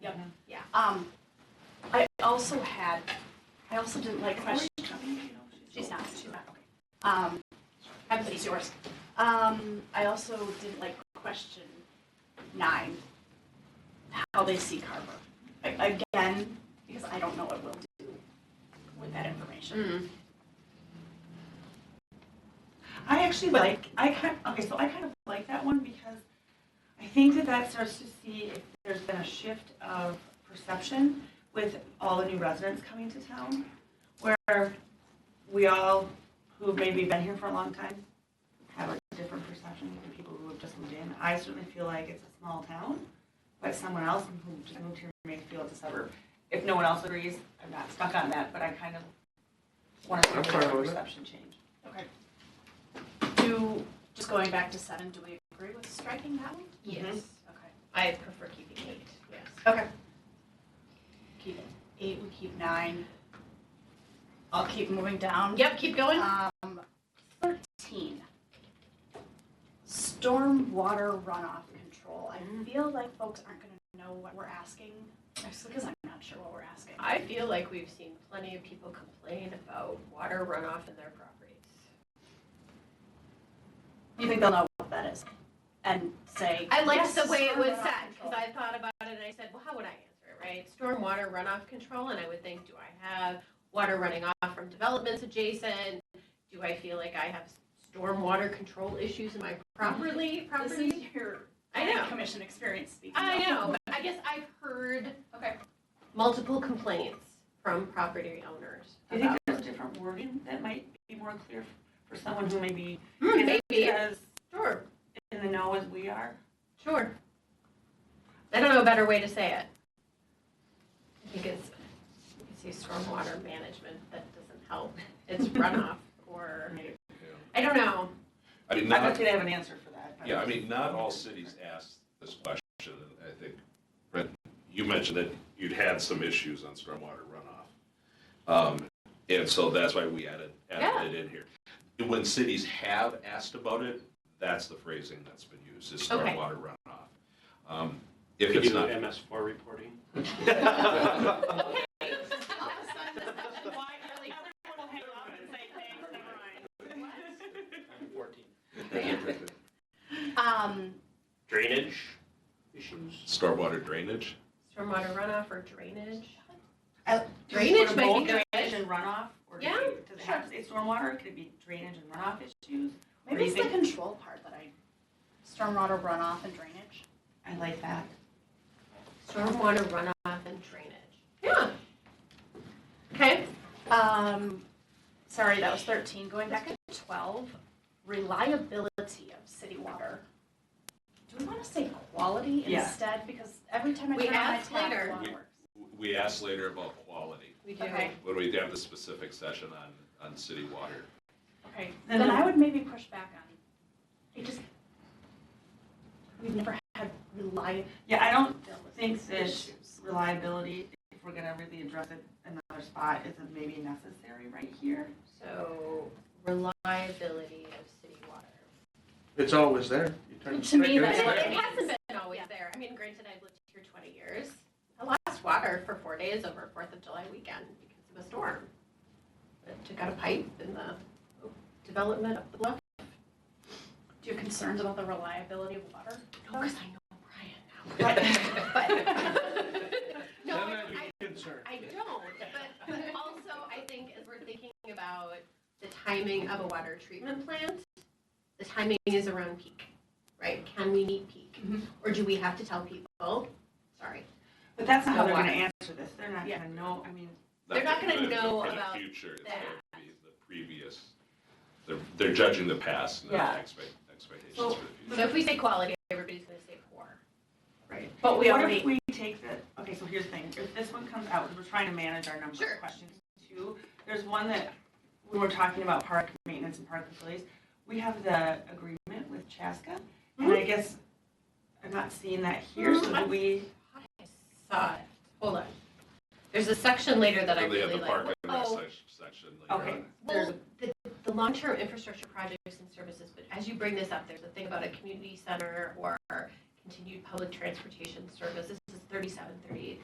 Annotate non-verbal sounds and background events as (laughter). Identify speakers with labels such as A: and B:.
A: Um, I also had, I also didn't like fresh. She's not, she's not, okay. Um, everybody's yours. Um, I also didn't like question nine, how they see Carver. A- Again, because I don't know what we'll do with that information.
B: I actually like, I kind, okay, so I kind of like that one because I think that that starts to see if there's been a shift of perception with all the new residents coming to town, where we all, who've maybe been here for a long time, have a different perception than the people who have just moved in. I certainly feel like it's a small town, but someone else who just moved here may feel it's a suburb. If no one else agrees, I'm not stuck on that, but I kind of want to see
C: I'm
B: if
C: fine
B: there's a
C: with it.
B: perception change.
A: Okay. Do, just going back to seven, do we agree with striking that one?
D: Yes,
A: Okay.
D: I prefer keeping eight, yes.
A: Okay. Keep it. eight, we keep nine. I'll keep moving down.
D: Yep, keep going.
A: Um, thirteen. Stormwater runoff control. I feel like folks aren't gonna know what we're asking, just because I'm not sure what we're asking.
D: I feel like we've seen plenty of people complain about water runoff in their properties.
A: You think they'll know what that is? And say.
D: I liked
A: "Yes,
D: the way it was
A: stormwater
D: said,
A: control."
D: because I thought about it and I said, well, how would I answer it, right? Stormwater runoff control, and I would think, do I have water running off from developments adjacent? Do I feel like I have stormwater control issues in my property,
A: This is
D: property?
A: your
D: I know.
A: commission experience speaking.
D: I
A: though.
D: (laughs) know, but I guess I've heard
A: Okay.
D: multiple complaints from property owners
B: Do you think
D: about.
B: there's different wording that might be more clear for someone who may be
D: Hmm, Maybe,
B: as
D: sure,
B: in the know as we are?
D: sure. I don't know a better way to say it. I think it's, you see stormwater management, that doesn't help, (laughs) it's runoff, or, I don't know.
E: I mean,
B: I'm not
E: not,
B: gonna have an answer for that. but-
E: yeah, I mean, not all cities ask this question, and I think, Brent, you mentioned that you'd had some issues on stormwater runoff. Um, And so that's why we added, added it in here. And When cities have asked about it, that's the phrasing that's been used, is
D: Okay.
E: stormwater runoff. Um, If
F: Could
E: it's
F: you do
E: not.
F: MS four reporting? Fourteen.
A: Um,
F: Drainage issues?
E: Stormwater drainage?
D: Stormwater runoff or drainage?
B: Does
D: Drainage
B: it
D: might
B: go
D: be good.
B: Drainage and runoff? or does
D: Yeah,
B: it- Does it have to say stormwater? Could it be drainage and runoff issues? Or
A: maybe
B: do
A: it's
B: you
A: the
B: think-
A: control part that I, stormwater runoff and drainage.
B: I like that.
D: Stormwater runoff and drainage. Yeah. Okay,
A: Um, sorry, that was thirteen. Going back to twelve, reliability of city water. Do we want to say quality
B: Yeah.
A: instead? Because every time I
D: We
A: turn on my
D: asked
A: tap,
D: later.
A: water
E: We-
A: works.
E: We asked later about quality,
D: we do.
A: Okay.
E: when we have the specific session on, on city water.
A: Okay,
B: Then
A: then
B: the-
A: I would maybe push back on, it just, we've never had reliability
B: Yeah, I don't think that
A: issues.
B: reliability, if we're gonna really address it another spot, is maybe necessary right here.
D: So reliability of city water.
C: It's always there. You turn-
A: To me,
C: it-
A: that's
D: It
A: what
C: it's-
D: hasn't been always there. I mean, granted, I've lived here 20 years. I lost water for four days over Fourth of July weekend because of a storm. It took out a pipe in the development up the bluff.
A: Do you have concerns about the reliability of water?
B: (laughs)
D: No, because (laughs) I know Brian now. But- (laughs) No,
C: Then
D: I-
C: I'd be
D: I
C: concerned.
D: I don't, but, but also I think as we're thinking about the timing of a water treatment plant, the timing is around peak, right? Can we meet peak?
A: Mhm.
D: Or do we have to tell people, sorry,
B: But that's not how
D: No
B: they're gonna
D: water.
B: answer this. They're not gonna know, I mean,
D: They're not gonna
E: the- the-
D: know
E: for the
D: about
E: future, it's
D: that.
E: gonna be the previous, they're, they're judging the past and the
B: Yeah.
E: expect, expectations
B: So-
E: for
D: so
E: the future.
D: if we say quality, everybody's gonna say poor.
B: Right.
A: But we
B: What
A: already-
B: if we take the, okay, so here's the thing, if this one comes out, 'cause we're trying to manage our number
D: Sure.
B: of questions too. There's one that, when we're talking about park maintenance and park facilities, we have the agreement with Chaska. And
A: Mm-hmm.
B: I guess I'm not seeing that here, so do we,
D: I saw it, hold on. There's a section later that I
E: They have
D: really
E: the park
D: like,
E: and rec
D: oh,
E: sec- section later
B: okay.
E: on.
B: there's
D: well, the, the long-term infrastructure projects and services, but as you bring this up, there's a thing about a community center or continued public transportation service. This is 37, 38,